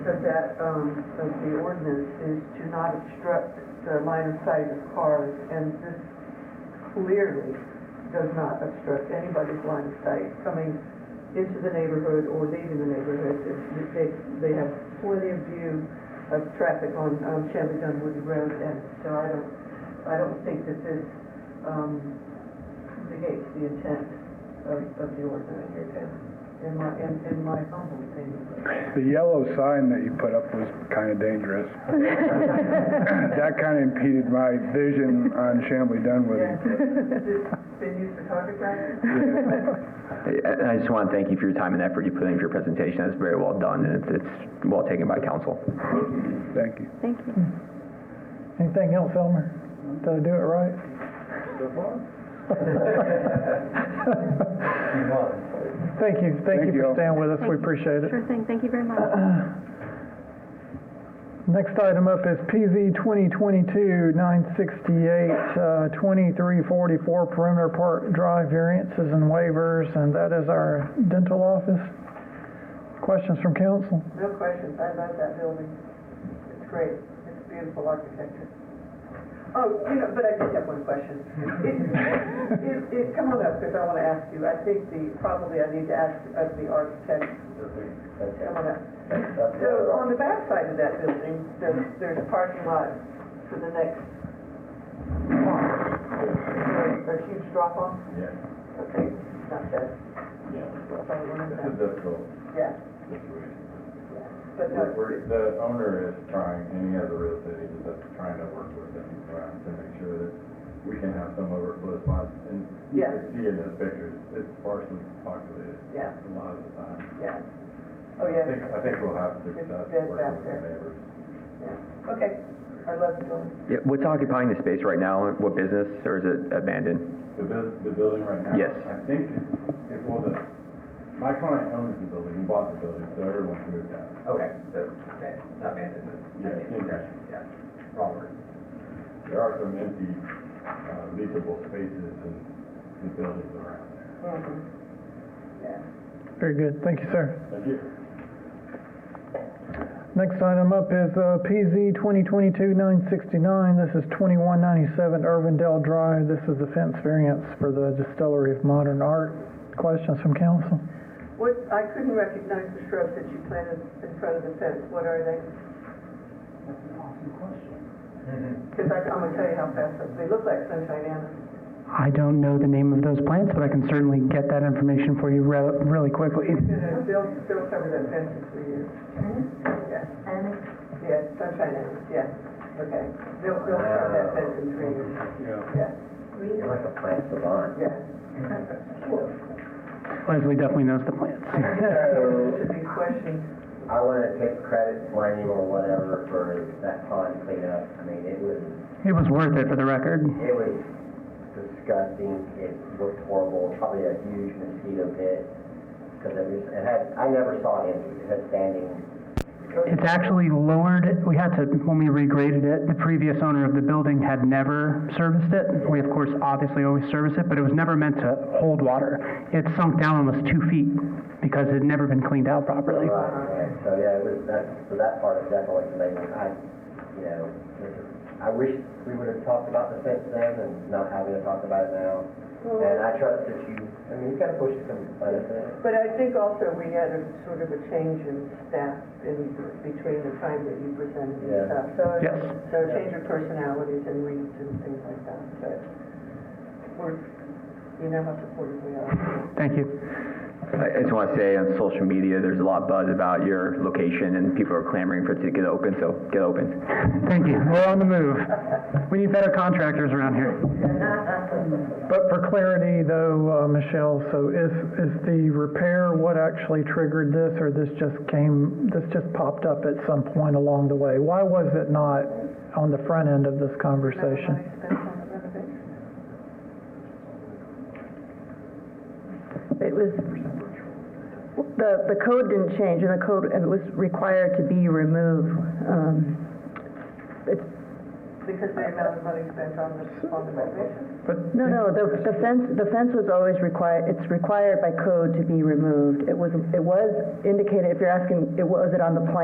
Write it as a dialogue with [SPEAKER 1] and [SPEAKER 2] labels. [SPEAKER 1] that, um, of the ordinance is to not obstruct the line of sight of cars, and this clearly does not obstruct anybody's line of sight coming into the neighborhood or leaving the neighborhood. It's- They, they have plenty of view of traffic on, um, Shelby Dunwoody Road, and so I don't, I don't think that this, um, negates the intent of, of the ordinance, in my, in, in my humble opinion.
[SPEAKER 2] The yellow sign that you put up was kind of dangerous. That kind of impeded my vision on Chamblee Dunwoody.
[SPEAKER 1] Been used for target practice?
[SPEAKER 3] I I just want to thank you for your time and effort you put in for your presentation. That's very well done, and it's- it's well taken by council.
[SPEAKER 2] Thank you.
[SPEAKER 4] Thank you.
[SPEAKER 5] Anything else, Elmer? Did I do it right? Thank you, thank
[SPEAKER 2] Thank
[SPEAKER 5] you
[SPEAKER 2] you
[SPEAKER 5] for
[SPEAKER 2] all.
[SPEAKER 5] staying with us, we appreciate it.
[SPEAKER 4] Sure thing, thank you very much.
[SPEAKER 5] Next item up is PZ 2022-968, uh, 2344 Perimeter Park Drive variances and waivers, and that is our dental office. Questions from council?
[SPEAKER 1] No questions, I love that building. It's great, it's beautiful architecture. Oh, you know, but I did have one question. It, it, it, come on up, because I want to ask you, I think the, probably I need to ask of the architect, come on up. So on the back side of that building, there's, there's a parking lot for the next block. Is there A huge drop off?
[SPEAKER 6] Yeah.
[SPEAKER 1] Okay, not that. If I learned
[SPEAKER 6] It's
[SPEAKER 1] that.
[SPEAKER 6] a difficult
[SPEAKER 1] Yeah,
[SPEAKER 6] situation.
[SPEAKER 1] but no.
[SPEAKER 6] We're- we're- The owner is trying, any other real estate agent that's trying to work with them around to make sure that we can have some overflow spots. And you
[SPEAKER 1] Yeah.
[SPEAKER 6] can see in those pictures, it's sparsely populated
[SPEAKER 1] Yeah,
[SPEAKER 6] a lot of the time.
[SPEAKER 1] yeah. Oh,
[SPEAKER 6] I
[SPEAKER 1] yeah,
[SPEAKER 6] think, I think we'll have
[SPEAKER 1] It's
[SPEAKER 6] success
[SPEAKER 1] dead back
[SPEAKER 6] working with the
[SPEAKER 1] there.
[SPEAKER 6] neighbors.
[SPEAKER 1] okay. I love the building.
[SPEAKER 3] Yeah, What's occupying the space right now? What business, or is it abandoned?
[SPEAKER 6] The buil- the building right now?
[SPEAKER 3] Yes.
[SPEAKER 6] I think, it well, the, my client owns the building, he bought the building, so everyone's moved out.
[SPEAKER 7] Okay, so, okay, not abandoned,
[SPEAKER 6] Yeah,
[SPEAKER 7] but,
[SPEAKER 6] yeah.
[SPEAKER 7] yeah, wrong word.
[SPEAKER 6] There are some empty, uh, leasable spaces in the buildings around there.
[SPEAKER 5] Very good, thank you, sir.
[SPEAKER 6] Thank you.
[SPEAKER 5] Next item up is uh, PZ 2022-969. This is 2197 Irvindale Drive. This is the fence variance for the Distillery of Modern Art. Questions from council?
[SPEAKER 1] What, I couldn't recognize the shrubs that you planted in front of the fence, what are they? That's an awesome question. Because I, I'm gonna tell you how fast, they- they look like sunshine animals.
[SPEAKER 8] I don't know the name of those plants, but I can certainly get that information for you re- really quickly.
[SPEAKER 1] They'll, they'll cover that fence in three years. Yeah. Yeah, sunshine animals, yeah, okay. They'll, they'll cover that fence in three years. Yeah.
[SPEAKER 7] You're like a plant savant.
[SPEAKER 1] Yeah.
[SPEAKER 8] Leslie definitely knows the plants.
[SPEAKER 1] Should be questioned.
[SPEAKER 7] I wanted to take credit, blame or whatever for that pond cleanup. I mean, it was,
[SPEAKER 8] It was worth it for the record.
[SPEAKER 7] it was disgusting. It looked horrible, probably a huge mosquito pit. Cause it was, it had, I never saw it empty. It had standing.
[SPEAKER 8] It's actually lowered, we had to, when we regraded it, the previous owner of the building had never serviced it. We, of course, obviously always service it, but it was never meant to hold water. It sunk down almost two feet because it had never been cleaned out properly.
[SPEAKER 7] Right, and so, yeah, it was, that, so that part is definitely amazing. I, you know, I wish we would have talked about the fence then and not having to talk about it now. And I trust that you, I mean, you gotta push some, uh,
[SPEAKER 1] But I think also we had a sort of a change in staff in between the time that you presented and
[SPEAKER 7] Yeah.
[SPEAKER 1] stuff. So, it-
[SPEAKER 8] Yes.
[SPEAKER 1] so a change of personalities and reads and things like that, but we're, you know how supportive we are.
[SPEAKER 8] Thank you.
[SPEAKER 3] I I just want to say on social media, there's a lot of buzz about your location, and people are clamoring for it to get open, so get open.
[SPEAKER 8] Thank you. We're on the move. We need better contractors around here.
[SPEAKER 5] But for clarity though, uh, Michelle, so is, is the repair what actually triggered this or this just came, this just popped up at some point along the way? Why was it not on the front end of this conversation?
[SPEAKER 1] Everybody spends on the renovation.
[SPEAKER 9] It was, the, the code didn't change, and the code, it was required to be removed. Um,
[SPEAKER 1] Because the amount of money spent on the, on the renovation.
[SPEAKER 9] No, no, the, the fence, the fence was always required, it's required by code to be removed. It was, it was indicated, if you're asking, it was it on the plan?